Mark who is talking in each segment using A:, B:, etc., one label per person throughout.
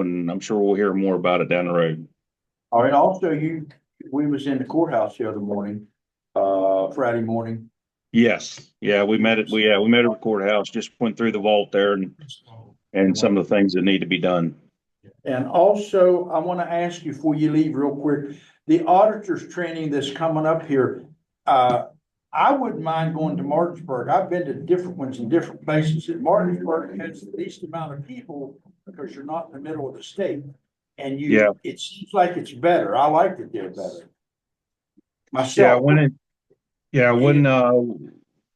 A: and I'm sure we'll hear more about it down the road.
B: All right, also you, we was in the courthouse the other morning, uh, Friday morning.
A: Yes, yeah, we met at, we, yeah, we met at the courthouse, just went through the vault there and, and some of the things that need to be done.
B: And also, I want to ask you before you leave real quick, the auditors training that's coming up here. Uh, I wouldn't mind going to Martinsburg. I've been to different ones in different places. And Martinsburg has the least amount of people because you're not in the middle of the state. And you,
A: Yeah.
B: it seems like it's better. I like it there better.
A: Yeah,
B: Myself.
A: when it, yeah, when, uh,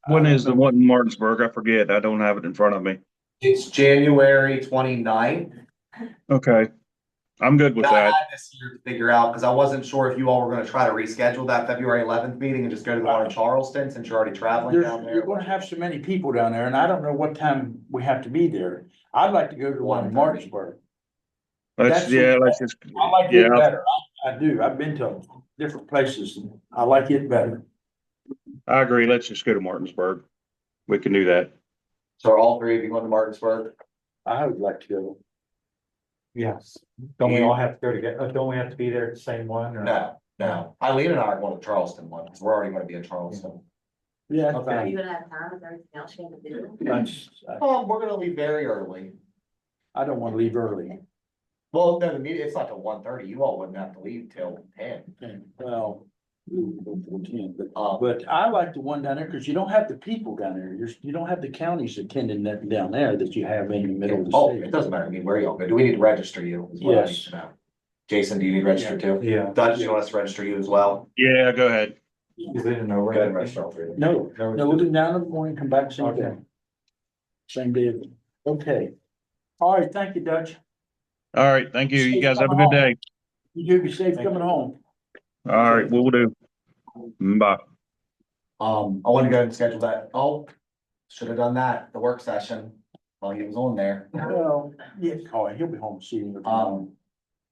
A: when
B: I
A: is the
B: don't know.
A: one Uh, in Martinsburg? I forget. I don't have it in front of me.
C: It's January 29th.
A: Okay. I'm good with
C: Now, I
A: that.
C: had This year to figure out, because I wasn't sure if you all were gonna try to reschedule that February eleventh meeting and just go to the one in Charleston, since you're already traveling
B: There's,
C: down
B: you're
C: there.
B: gonna have so many people down there, and I don't know what time we have to be there. I'd like to go to one in Martinsburg.
A: Let's,
B: that's-
A: yeah, let's just,
B: I like
A: yeah,
B: it better. I, I do. I've been to different places. and I like it better.
A: I agree. Let's just go to Martinsburg. We can do that.
C: So are all three of you going to Martinsburg?
B: I would like to go.
D: Yes, don't we all have to go together, don't we have to be there at the same one or?
C: No, no. Eileen and I are going to Charleston one, because we're already gonna be in Charleston.
B: Yeah. that's
D: Okay.
E: Are
B: fine.
E: you gonna have time with everything else you need to do?
B: That's- I-
C: Um, we're gonna leave very early.
B: I don't wanna leave early.
C: Well, no, the meeting, it's not till one thirty. You all wouldn't have to leave till ten.
B: Well, we can, but,
C: Um,
B: but I like the one down there, cause you don't have the people down there. You're, you don't have the counties attending that down there that you have in the middle of
C: oh,
B: the
C: it
B: state.
C: doesn't matter. I mean, where y'all go. Do we need to register you? is what I need
B: Yes.
C: to know. Jason, do you need to register too?
D: Yeah,
C: Dutch, you want us to register you as well?
A: Yeah, go ahead.
D: is it in a?
C: Go ahead and register all three of them.
B: No,
D: No,
B: No, we'll go down in the morning, come back same day.
D: Okay.
B: Same day, okay. All right, thank you, Dutch.
A: All right. Thank you. You
B: Safe
A: guys have a
B: coming
A: good day.
B: You do be safe
D: Thank
B: coming home.
A: All right, we'll do. Bye.
C: Um, I wanna go ahead and schedule that. Oh, should have done that, the work session, while he was on there.
B: Well, yeah, oh, he'll be home soon.
C: Um,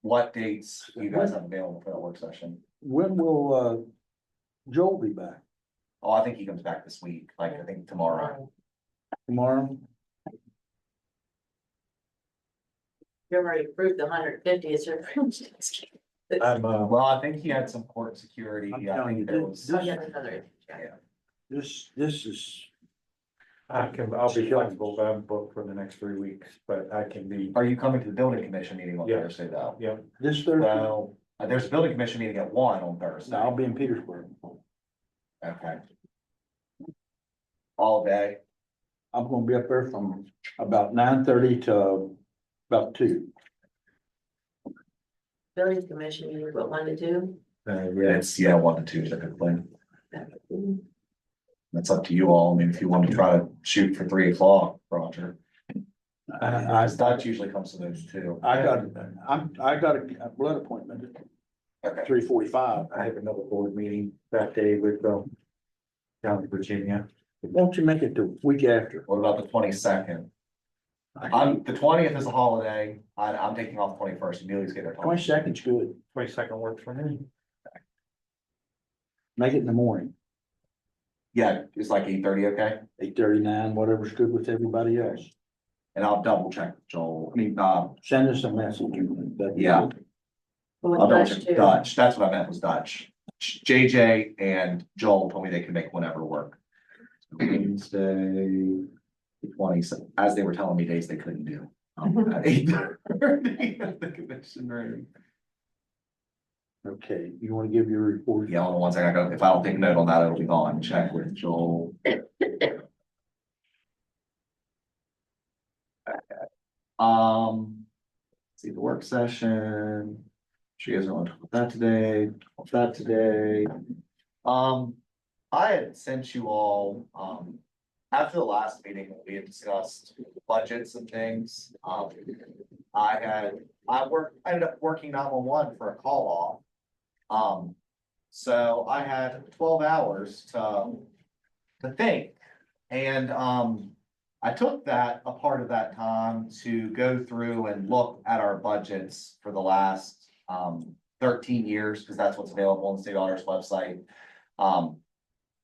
C: what dates you guys have available for that work session?
B: When will, uh, Joel be back?
C: Oh, I think he comes back this week, like I think tomorrow.
B: Tomorrow?
E: You already approved the hundred fifty, it's your.
D: I'm, uh,
C: Well, I think he had some court security.
B: I'm
C: I
B: telling you,
C: think there
B: this-
C: was.
B: this-
E: Oh, yeah, another.
B: This, this is,
D: I can, I'll be flexible, but I'm booked for the next three weeks, but I can be,
C: Are you coming to the building commission meeting on
D: Yeah.
C: Thursday though?
D: yeah,
B: this Thursday,
C: Well, uh, there's a building commission meeting at one
B: no,
C: on Thursday.
B: I'll be in Petersburg.
C: Okay. All day.
B: I'm gonna be up there from about nine thirty to about two.
E: Building commission, you were one to two?
B: Uh,
C: It's, yeah, one to two, typically. That's up to you all. I mean, if you want to try to shoot for three o'clock, Roger.
B: I, I,
C: Dutch usually comes to those two.
B: I got, I'm, I got a blood appointment at
C: Okay.
B: three forty-five.
D: I have another board meeting that day with, um, down in Virginia.
B: Won't you make it the week after?
C: What about the twenty-second?
B: Twenty
C: I'm, the twentieth is a holiday. I, I'm taking off twenty-first. Amelia's getting her.
B: second's good.
D: Twenty-second works for me.
B: Make it in the morning,
C: Yeah, it's like eight-thirty, okay?
B: eight thirty-nine, whatever's good with everybody else.
C: And I'll double check Joel, I mean, um,
B: Send us a message. That'd be
C: Yeah.
B: good.
C: I'll double check Dutch. That's what I meant was Dutch. JJ and Joel told me they could make whenever work. Wednesday, twenty, as they were telling me days they couldn't do. um, At eight-thirty at the convention room.
B: Okay, you wanna give your report?
C: Yeah, hold on one second. I got, if I don't take note on that, it'll be gone. Check with Joel. Um, see the work session. She doesn't want to talk about that today, talk about that today. Um, I had sent you all, um, after the last meeting, we had discussed budgets and things. Um, I had, I worked, I ended up working nine one one for a call off. Um, so I had twelve hours to, to think. And, um, I took that, a part of that time to go through and look at our budgets for the last, um, thirteen years, because that's what's available on the state auditor's website. Um,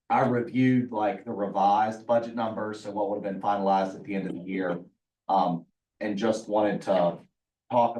C: I reviewed like the revised budget numbers, so what would have been finalized at the end of the year. Um, and just wanted to talk